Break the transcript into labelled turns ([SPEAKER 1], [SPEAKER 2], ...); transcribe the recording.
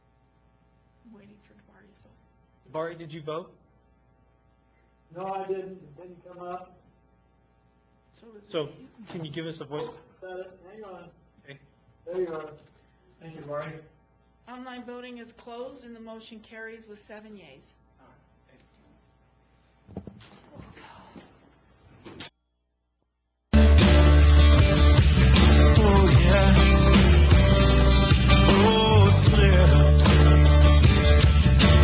[SPEAKER 1] I'm waiting for Barty's vote.
[SPEAKER 2] Bart, did you vote?
[SPEAKER 3] No, I didn't, it didn't come up,
[SPEAKER 1] So is it
[SPEAKER 2] So
[SPEAKER 1] me?
[SPEAKER 2] can you give us a voice?
[SPEAKER 3] said it, hang on.
[SPEAKER 2] Okay.
[SPEAKER 3] There you are. Thank you, Marty.
[SPEAKER 1] Online voting is closed and the motion carries with seven yeas.